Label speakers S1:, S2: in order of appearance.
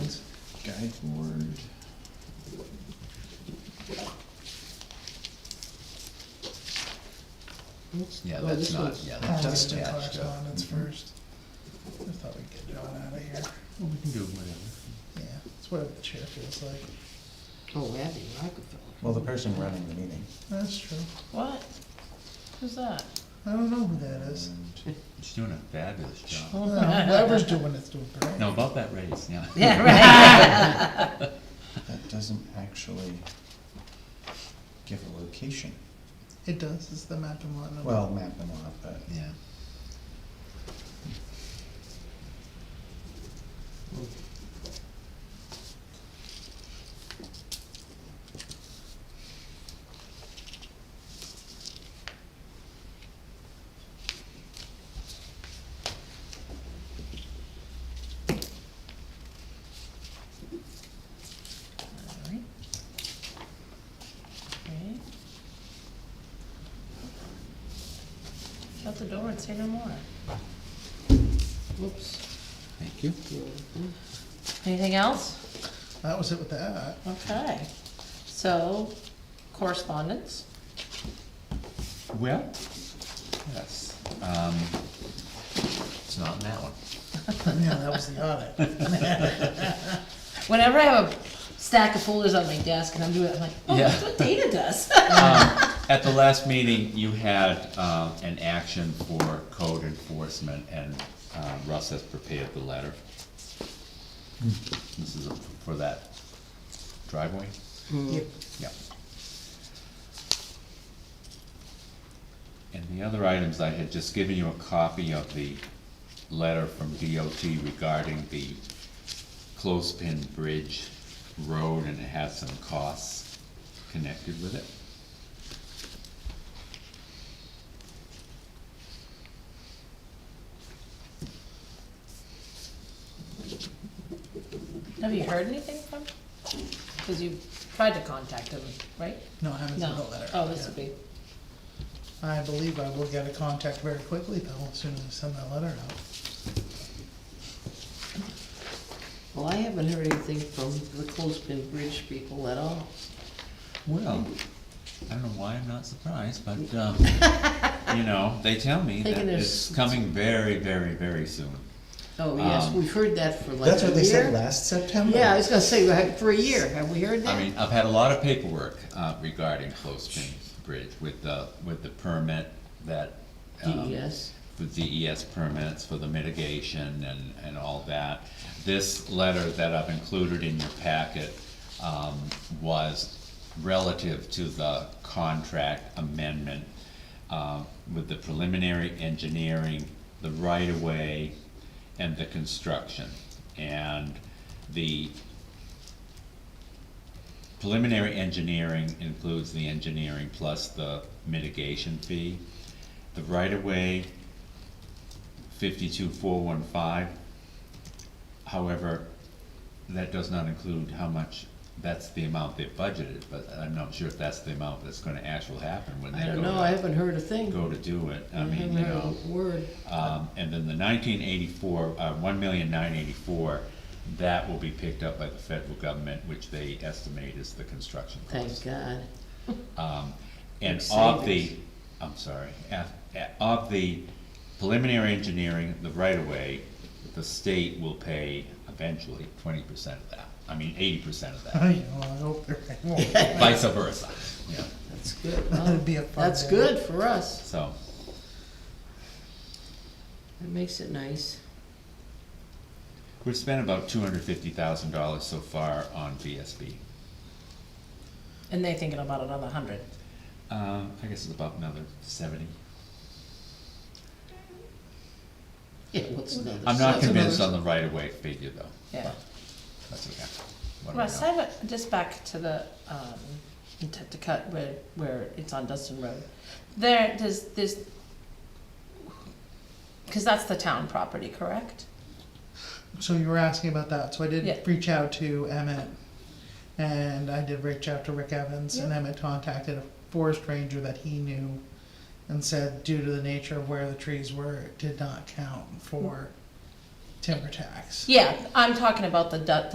S1: guide board.
S2: Oops.
S3: Yeah,
S2: Oh,
S3: that's
S2: this
S3: not-
S2: was-
S3: yeah,
S2: oh, this-
S3: that's just-
S4: Constant
S3: yeah, sure.
S4: correspondence first. I thought we'd get John out of here.
S3: Well, we can do whatever.
S4: Yeah, it's whatever the chair feels like.
S2: Oh, Abby Rockefeller.
S1: Well, the person running the meeting.
S4: That's true.
S5: What? Who's that?
S4: I don't know who that is.
S1: and-
S3: She's doing a fabulous job.
S4: Well, Whoever's doing it's doing great.
S3: No, about that raise, yeah.
S2: Yeah, right.
S1: That doesn't actually give a location.
S4: It does, it's the map and whatnot.
S1: Well, map and lot, but
S3: Yeah.
S5: Alright. Okay. Shut the door and say no more.
S2: Oops.
S3: Thank you.
S2: Yeah, mhm.
S5: Anything else?
S4: That was it with that.
S5: Okay. So, correspondence?
S3: Well, yes, um, it's not in that one.
S4: Yeah, that was the audit.
S5: Mm-hmm. Whenever I have a stack of folders on my desk and I'm doing it, I'm like, oh,
S3: Yeah.
S5: that's what Dana does.
S3: Um, At the last meeting, you had, um, an action for code enforcement and, uh, Russ has prepared the letter. Hmm. This is for that driveway?
S4: Yep.
S3: Yep. And the other items, I had just given you a copy of the letter from DOT regarding the Clothespin Bridge Road, and it has some costs connected with it.
S5: Have you heard anything from? Cause you tried to contact him, right?
S4: No, I haven't sent the
S5: No.
S4: letter.
S5: Oh, this
S4: yet.
S5: would be,
S4: I believe I will get a contact very quickly though, as soon as I send that letter out.
S2: Well, I haven't heard anything from the Clothespin Bridge people at all.
S3: Well, I don't know why I'm not surprised, but, um, you know, they tell me that
S2: Thinking there's-
S3: it's coming very, very, very soon.
S2: Oh, yes,
S3: Um,
S2: we've heard that for like a year.
S1: that's what they said last September.
S2: Yeah, I was gonna say, like, for a year, have we heard that?
S3: I mean, I've had a lot of paperwork uh, regarding Clothespin Bridge with the, with the permit that. um,
S5: E
S2: DES.
S3: With DES permits for the mitigation and, and all that. This letter that I've included in your packet um, was relative to the contract amendment um, with the preliminary engineering, the right-of-way, and the construction. And the Preliminary engineering includes the engineering plus the mitigation fee. The right-of-way, fifty-two four one five. However, that does not include how much, that's the amount they've budgeted, but I'm not sure if that's the amount that's gonna actually happen when they
S2: I
S3: go
S2: don't know, I
S3: to,
S2: haven't heard a thing.
S3: go to do it. I
S2: haven't
S3: mean, you know.
S2: heard a Word.
S3: Um, and then the nineteen eighty-four, uh, one million nine eighty-four, that will be picked up by the federal government, which they estimate is the construction
S2: Thank
S3: cost.
S2: God.
S3: Um, and
S2: Big
S3: of the,
S2: savings.
S3: I'm sorry, uh, uh, of the preliminary engineering, the right-of-way, the state will pay eventually twenty percent of that, I mean eighty percent of that,
S4: I know, I hope there ain't more.
S3: vice versa, yeah,
S2: That's good.
S4: That'd be a fun
S2: That's
S4: day.
S2: good for us.
S3: so.
S2: That makes it nice.
S3: We've spent about two hundred fifty thousand dollars so far on VSB.
S5: and they thinking about another hundred.
S3: Um, I guess it's about another seventy.
S2: Yeah, what's another?
S3: I'm not
S2: seven?
S3: convinced on the right of way figure though.
S5: Yeah.
S3: but That's okay. What do I
S5: Russ, I
S3: know?
S5: have a, just back to the, um, to, to cut where, where it's on Dustin Road. There, there's, there's, cause that's the town property, correct?
S4: So you were asking about that, so I
S5: Yeah.
S4: did reach out to Emmett, and I did reach out to Rick Evans, and
S5: Yeah.
S4: Emmett contacted a forest ranger that he knew and said due to the nature of where the trees were, it did not count for timber tax.
S5: Yeah, I'm talking about the, Du-